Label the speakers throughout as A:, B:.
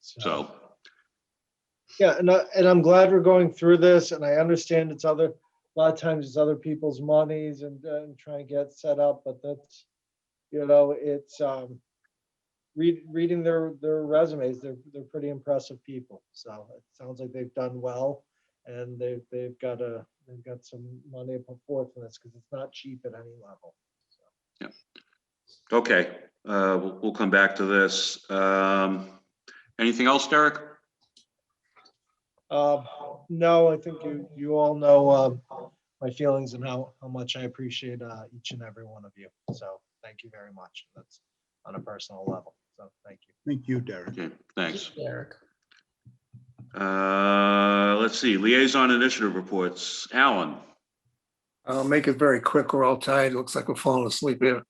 A: So,
B: Yeah, and I, and I'm glad we're going through this and I understand it's other, a lot of times it's other people's monies and, uh, and trying to get set up, but that's, you know, it's, um, read, reading their, their resumes, they're, they're pretty impressive people. So it sounds like they've done well and they've, they've got a, they've got some money to put forth in this because it's not cheap at any level.
A: okay, uh, we'll, we'll come back to this. Um, anything else, Derek?
B: Um, no, I think you, you all know, um, my feelings and how, how much I appreciate, uh, each and every one of you. So thank you very much. That's on a personal level. So thank you.
C: Thank you, Derek.
A: Okay, thanks.
D: Derek.
A: Uh, let's see, liaison initiative reports. Alan,
E: I'll make it very quick. We're all tired. It looks like we're falling asleep here.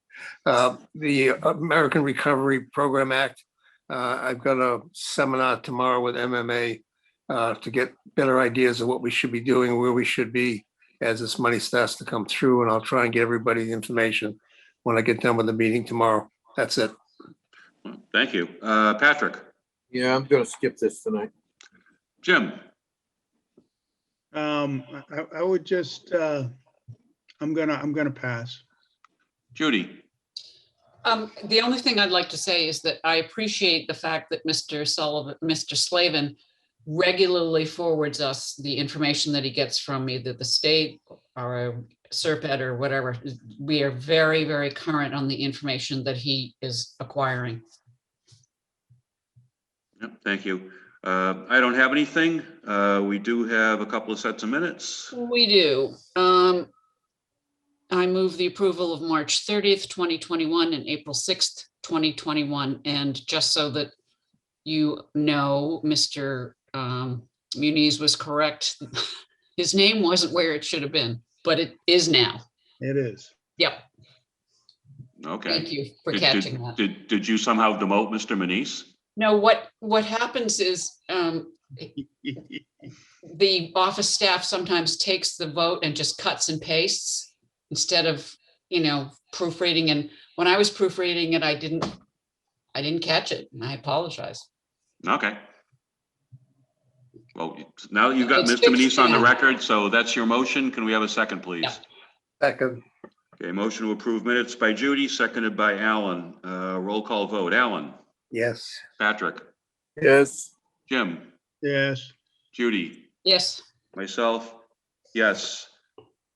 E: Uh, The American Recovery Program Act. uh, I've got a seminar tomorrow with MMA uh, to get better ideas of what we should be doing, where we should be as this money starts to come through, and I'll try and get everybody the information when I get done with the meeting tomorrow. That's it.
A: thank you. Uh, Patrick,
F: Yeah, I'm gonna skip this tonight.
A: Jim,
C: Um, I- I, I would just, uh, I'm gonna, I'm gonna pass.
A: Judy,
D: Um, the only thing I'd like to say is that I appreciate the fact that Mr. Sullivan, Mr. Slavin regularly forwards us the information that he gets from either the state or SERPED or whatever. We are very, very current on the information that he is acquiring.
A: Yep, thank you. Uh, I don't have anything. Uh, we do have a couple of sets of minutes.
D: We do. Um, I move the approval of March thirtieth, twenty twenty-one and April sixth, twenty twenty-one. And just so that you know, Mr. Um, Muniz was correct. His name wasn't where it should have been, but it is now.
C: It is.
D: Yep,
A: Okay.
D: thank you for
A: Did-
D: catching
A: did-
D: that.
A: Did, did you somehow demote Mr. Manise?
D: No, what, what happens is, um, the office staff sometimes takes the vote and just cuts and pastes instead of, you know, proofreading. And when I was proofreading it, I didn't, I didn't catch it and I apologize.
A: Okay. Well, you- now you've got
D: It's
A: Mr. Manise on the
D: fixed now.
A: record, so that's your motion. Can we have a second, please?
E: Second,
A: Okay, motion to approve minutes by Judy, seconded by Alan. Uh, roll call vote. Alan,
E: yes.
A: Patrick,
F: Yes,
A: Jim,
C: Yes,
A: Judy,
D: Yes,
A: myself, yes.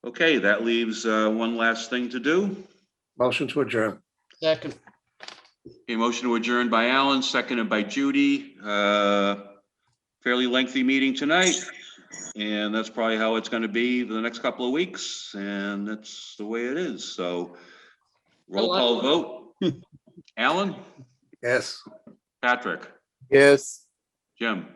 A: Okay, that leaves, uh, one last thing to do.
E: Motion to adjourn.
D: second,
A: A motion to adjourn by Alan, seconded by Judy. Uh, Fairly lengthy meeting tonight, and that's probably how it's going to be for the next couple of weeks, and that's the way it is, so. Roll call vote. Alan,
E: Yes.
A: Patrick,
F: yes.
A: Jim,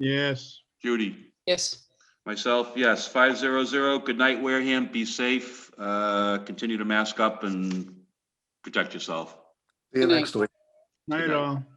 C: yes.
A: Judy,
D: yes.
A: myself, yes, five zero zero. Good night, Wareham. Be safe. Uh, Continue to mask up and protect yourself.
E: See you
D: Good night.
E: next week.
C: Night all.